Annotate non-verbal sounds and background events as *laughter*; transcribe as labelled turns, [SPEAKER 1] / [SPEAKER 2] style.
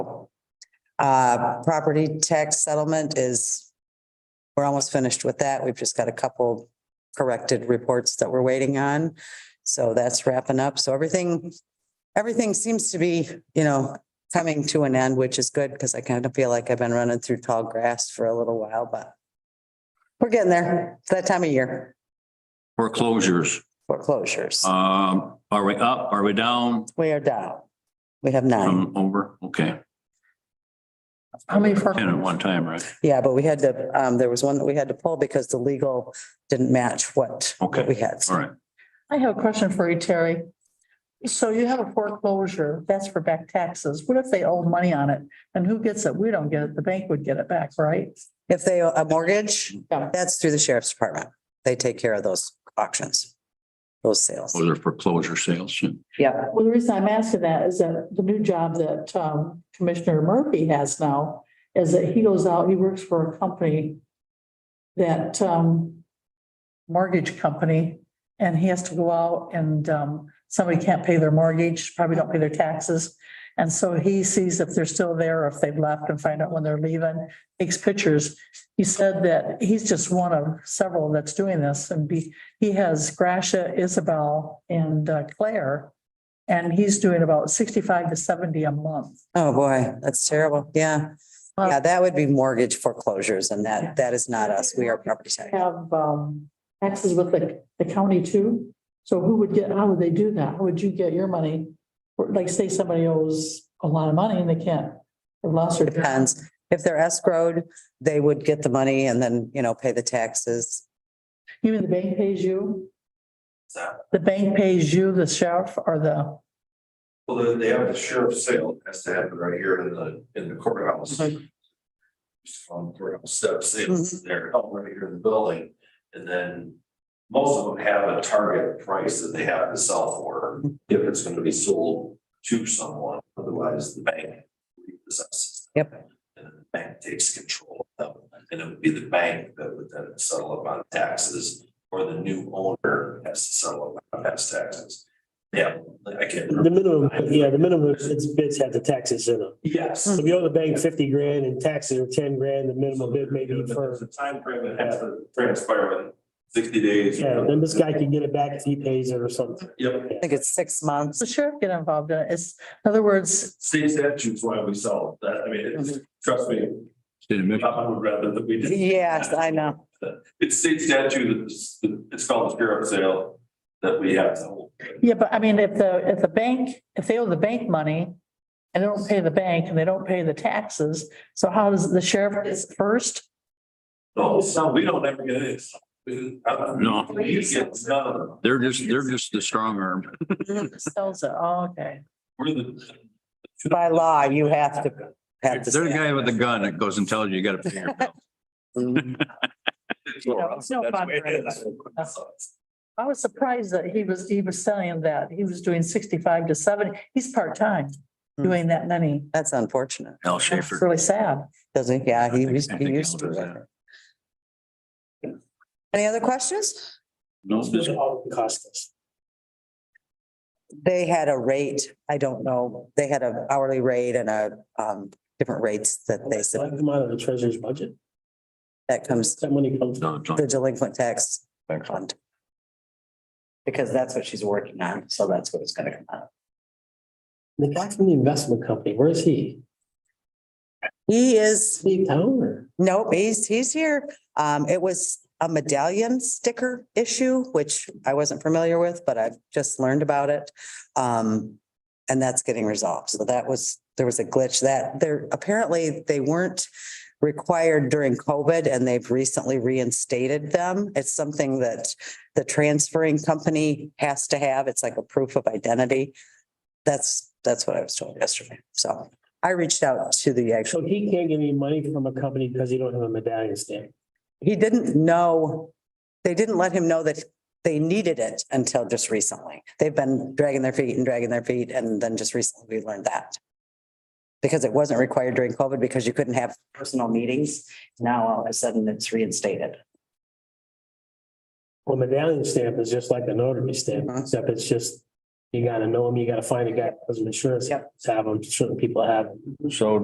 [SPEAKER 1] Uh, property tax settlement is, we're almost finished with that. We've just got a couple corrected reports that we're waiting on. So that's wrapping up. So everything, everything seems to be, you know, coming to an end, which is good because I kind of feel like I've been running through tall grass for a little while, but we're getting there. It's that time of year,
[SPEAKER 2] Foreclosures,
[SPEAKER 1] foreclosures.
[SPEAKER 2] um, are we up? Are we down?
[SPEAKER 1] We are down. We have nine.
[SPEAKER 2] Um, over, okay.
[SPEAKER 3] How many
[SPEAKER 2] Ten at one
[SPEAKER 3] foreclosures?
[SPEAKER 2] time, right?
[SPEAKER 1] Yeah, but we had to, um, there was one that we had to pull because the legal didn't match what
[SPEAKER 2] Okay.
[SPEAKER 1] we had.
[SPEAKER 2] All right.
[SPEAKER 3] I have a question for you, Terry. So you have a foreclosure, that's for back taxes. What if they owe money on it? And who gets it? We don't get it. The bank would get it back, right?
[SPEAKER 1] If they, owe a mortgage,
[SPEAKER 3] Yeah.
[SPEAKER 1] that's through the sheriff's department. They take care of those auctions, those sales.
[SPEAKER 2] Those are foreclosure sales.
[SPEAKER 1] Yeah.
[SPEAKER 3] Well, the reason I'm asking that is that the new job that um, Commissioner Murphy has now is that he goes out, he works for a company that um, mortgage company, and he has to go out and um, somebody can't pay their mortgage, probably don't pay their taxes. And so he sees if they're still there, or if they've left and find out when they're leaving, takes pictures. He said that he's just one of several that's doing this and be, he has Gracia, Isabel and uh, Claire. And he's doing about sixty-five to seventy a month.
[SPEAKER 1] Oh, boy, that's terrible. Yeah. Yeah, that would be mortgage foreclosures and that, that is not us. We are property tax.
[SPEAKER 3] Have um taxes with the the county too. So who would get, how would they do that? How would you get your money? Or, Like say somebody owes a lot of money and they can't, they've lost their.
[SPEAKER 1] Depends. If they're escrowed, they would get the money and then, you know, pay the taxes.
[SPEAKER 3] Even the bank pays you? The bank pays you, the sheriff or the,
[SPEAKER 4] Well, they- they have the sheriff's sale, it has to happen right here in the, in the courthouse.
[SPEAKER 3] Mhm.
[SPEAKER 4] Just on courthouse steps, it's there, held right here in the building, and then. Most of them have a target price that they have to sell for, if it's gonna be sold to someone, otherwise the bank. repossesses.
[SPEAKER 1] Yep.
[SPEAKER 4] And then the bank takes control of them, and it would be the bank that would then settle up on taxes, or the new owner has to settle up on past taxes. Yeah, I can't. remember.
[SPEAKER 5] The minimum, yeah, the minimum bids, bids have the taxes in them.
[SPEAKER 4] Yes.
[SPEAKER 5] So if you owe the bank fifty grand and taxes are ten grand, the minimum bid may be
[SPEAKER 4] There's a
[SPEAKER 5] for,
[SPEAKER 4] timeframe that has to transpire in sixty days.
[SPEAKER 5] yeah, then this guy can get it back if he pays it or something.
[SPEAKER 4] Yep,
[SPEAKER 1] I think it's six months.
[SPEAKER 3] does the sheriff get involved in it? It's, in other words,
[SPEAKER 4] state statutes why we sell it. that, I mean, it's, trust me,
[SPEAKER 2] State of Michigan.
[SPEAKER 4] I would rather that we did.
[SPEAKER 1] Yes, I know.
[SPEAKER 4] It's state statute, it's, it's called the sheriff sale that we have to hold.
[SPEAKER 3] Yeah, but I mean, if the, if the bank, if they owe the bank money and they don't pay the bank and they don't pay the taxes, so how does the sheriff is first?
[SPEAKER 4] No, so we don't ever get this. No.
[SPEAKER 2] No.
[SPEAKER 4] We get none of them.
[SPEAKER 2] They're just, they're just the strong arm.
[SPEAKER 3] Sells it, oh, okay.
[SPEAKER 4] We're the.
[SPEAKER 1] By law, you have to have
[SPEAKER 2] They're the
[SPEAKER 1] to.
[SPEAKER 2] guy with the gun that goes and tells you you gotta pay your *laughs* bill.
[SPEAKER 3] know, it's no fun for anybody. I was surprised that he was, he was selling that. He was doing sixty-five to seventy. He's part-time doing that many.
[SPEAKER 1] That's unfortunate.
[SPEAKER 2] Al
[SPEAKER 3] It's
[SPEAKER 2] Schaefer.
[SPEAKER 3] really sad.
[SPEAKER 1] Doesn't, yeah, he
[SPEAKER 2] I think-
[SPEAKER 1] used,
[SPEAKER 2] I
[SPEAKER 1] he
[SPEAKER 2] think
[SPEAKER 1] used
[SPEAKER 2] Al
[SPEAKER 1] to.
[SPEAKER 2] does
[SPEAKER 1] do
[SPEAKER 2] that.
[SPEAKER 1] that. Any other questions?
[SPEAKER 2] No,
[SPEAKER 5] Those are all the costs.
[SPEAKER 1] They had a rate, I don't know, they had an hourly rate and a, um, different rates that they
[SPEAKER 5] Like
[SPEAKER 1] said,
[SPEAKER 5] them out of the treasurer's budget.
[SPEAKER 1] that comes,
[SPEAKER 5] That money comes.
[SPEAKER 2] no, John.
[SPEAKER 1] the delinquent tax fund. Because that's what she's working on, so that's what it's gonna come out. of.
[SPEAKER 5] The guy from the investment company, where is he?
[SPEAKER 1] He is,
[SPEAKER 5] Leave town or?
[SPEAKER 1] nope, he's, he's here. Um, it was a medallion sticker issue, which I wasn't familiar with, but I've just learned about it. Um, and that's getting resolved. So that was, there was a glitch that there, apparently they weren't required during COVID and they've recently reinstated them. It's something that the transferring company has to have. It's like a proof of identity. That's, that's what I was told yesterday. So I reached out to the actual
[SPEAKER 5] So he can't get any money from a company because he don't have a medallion stamp.
[SPEAKER 1] he didn't know, they didn't let him know that they needed it until just recently. They've been dragging their feet and dragging their feet, and then just recently we learned that. Because it wasn't required during COVID because you couldn't have personal meetings. Now all of a sudden it's reinstated.
[SPEAKER 5] Well, medallion stamp is just like a notary stamp,
[SPEAKER 1] Mhm.
[SPEAKER 5] except it's just, you gotta know him, you gotta find a guy that has insurance,
[SPEAKER 1] Yep.
[SPEAKER 5] have them, certain people have 'em.
[SPEAKER 2] So